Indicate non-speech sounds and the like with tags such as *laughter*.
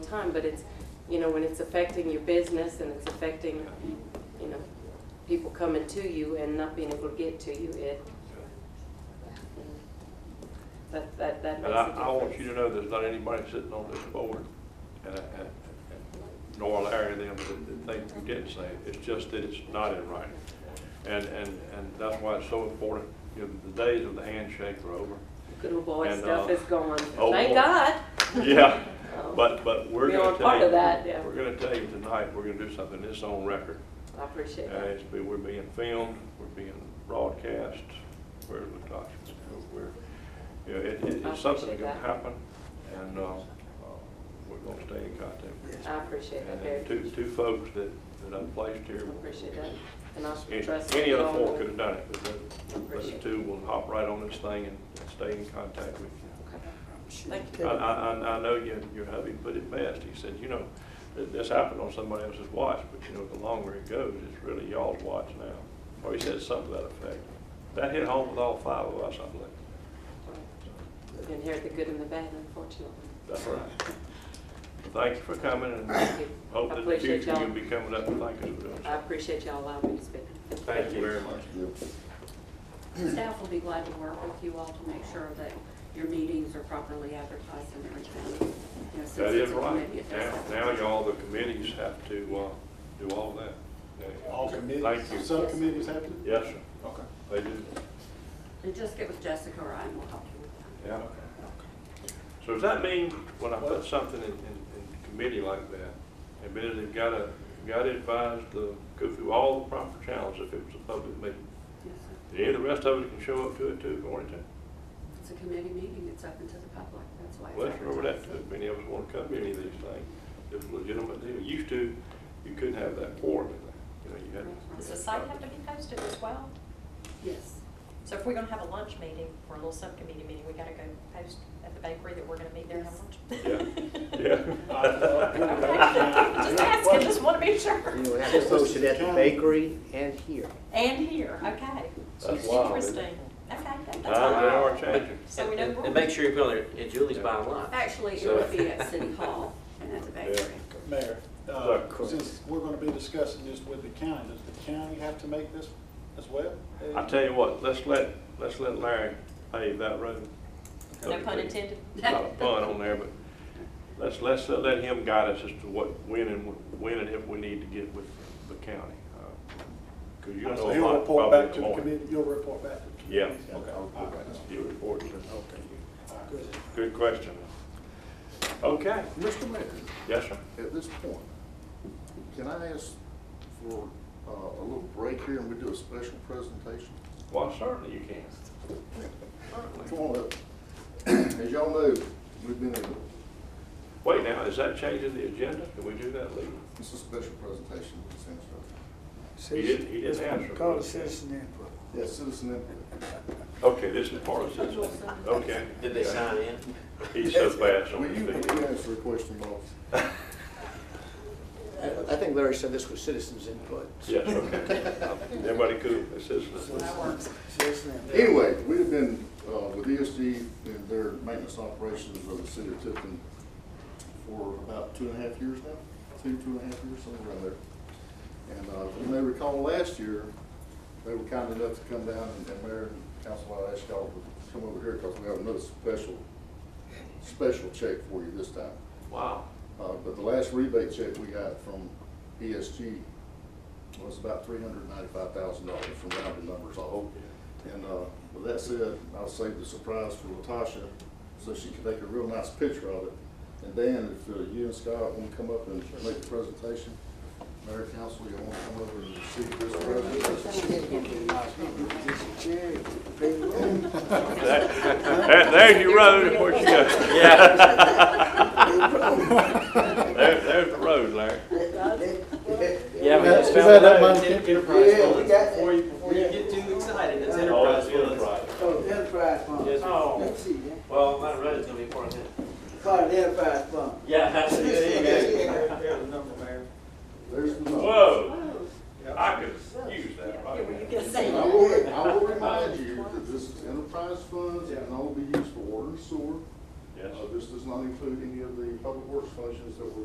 time, but it's, you know, when it's affecting your business and it's affecting, you know, people coming to you and not being able to get to you, it, that, that, that And makes a I, difference. I want you to know there's not anybody sitting on this board, and, I- and, and nor Larry and them, that, that think you didn't say it. It's just that it's not in writing. And, and, and that's why it's so important. You know, the days of the handshake are over. Good old boy and, stuff uh, is gone. *laughs* oh, Thank boy. God. Yeah, *laughs* Oh, but, but we're We gonna are part tell you, of that, yeah. we're gonna tell you tonight, we're gonna do something that's on record. I appreciate Uh, that. it's, be- we're being filmed, we're being broadcast, we're, we're, you know, it, it- I it's something appreciate that can that. happen, and, uh, uh, we're gonna stay in contact. I appreciate that And very then two, much. two folks that, that I placed I here. appreciate that. And I Any trust. any you other all four will- could have done it, but those- Appreciate those it. two will hop right on this thing and stay in contact with you. Okay. Thank I, you. I, I- I know your, your hubby put it best. He said, you know, th- this happened on somebody else's watch, but you know, the longer it goes, it's really y'all's watch now. Or he said something to that effect. That hit home with all five of us, I believe. We've inherited the good and the bad, unfortunately. That's right. Thank you for coming Thank and you. *coughs* hope I that in the appreciate future y'all. you'll be coming up and thank us for doing I something. appreciate y'all allowing me to speak. Thank you very much. Staff will be glad to work with you all to make sure that your meetings are properly advertised and everything. You know, since That it's is a committee, it right. does Now, have to now be- y'all, the committees have to, uh, do all that. All Thank you. committees, subcommittees have to? Yes, sir. Okay. They do. And just get with Jessica or I and we'll help you with that. Yeah. So does that mean when I put something in, in, in committee like that, and then they've got to, got to advise the, go through all the proper channels if it was a public meeting? Yes, sir. And any of the rest of it can show up to it too, if you wanted to. It's a committee meeting, it's open to the public, that's why. it's Well, that's remember that advertised. too. If Many of us want to come to any of these things. It's a legitimate deal. Used to, you couldn't have that quorum in there. You know, you had. Does the site have to be posted as well? Yes. So if we're gonna have a lunch meeting or a little subcommittee meeting, we gotta go post at the bakery that we're gonna meet there and have lunch? *laughs* *laughs* Yeah, yeah. Just asking, just wanna be sure. You have to post it at the bakery and here. And here, okay. That's wild, isn't it? Ah, Interesting. Okay, that- that's Times they all are right. changing. So we know And- we're- And make sure you put on there, and Julie's buying lunch. Actually, it So- *laughs* would be at City Hall and at the bakery. Mayor, uh, Look. since we're going to be discussing this with the county, does the county have to make this as well? I tell you what, let's let, let's let Larry pave that road. No pun intended. Not a pun on there, but let's, let's uh, let him guide us as to what, when and, when and if we need to get with the county. uh, Cause you know So a he'll lot report probably back to the more. committee, you'll report back to the committee? Yeah. Okay. all right. You report to, All right, good. good question. Okay, Mr. Mayor, yes, sir. at this point, can I ask for uh, a little break here and we do a special presentation? Well, certainly you can. Come on up. *clears throat* As y'all know, we've been in, Wait now, is that changing the agenda? Can we do that legally? it's a special presentation, essentially. He didn't, he didn't answer. Call it citizen input. Yes, citizen input. Okay, this is part of this, okay. Did they sign in? He's so fast on Will his you, will you feet. answer a question, boss? I I think Larry said this was citizens' input. Yes, okay. Everybody cool, this is. That works. Citizen input. Anyway, we've been uh, with ESG and their maintenance operations of the city of Tifton for about two and a half years now, two, two and a half years, somewhere around there. And uh, you may recall last year, they were kind enough to come down and- and Mayor and Council, I asked y'all to come over here because we have another special, special check for you this time. Wow. Uh, But the last rebate check we got from ESG was about three hundred ninety-five thousand dollars from rounded numbers off. And uh, with that said, I'll save the surprise for Latasha, so she can take a real nice picture of it. And Dan, if uh, you and Scott want to come up and make a presentation, Mayor Council, you want to come over and receive this presentation? There- there- There's your road, of course you *laughs* go. Yeah. *laughs* There, there's the road, Larry. Yeah, we just Is found that out that it's money? enterprise Yeah, we funds. got Before you, before you yeah. get too excited, it's Oh, enterprise funds. Oh, the enterprise fund. Yes, ma'am. Oh, let's see, yeah. Well, my road is gonna be part of it. Call it the enterprise fund. Yeah, that's it. There you go. *laughs* There's a number, Mayor. There's the number. Whoa, I could use that right Were you now. gonna say And I that? will, I will remind you that this is enterprise funds, it can only be used for water and sewer. Yes. Uh, This does not include any of the public works functions that were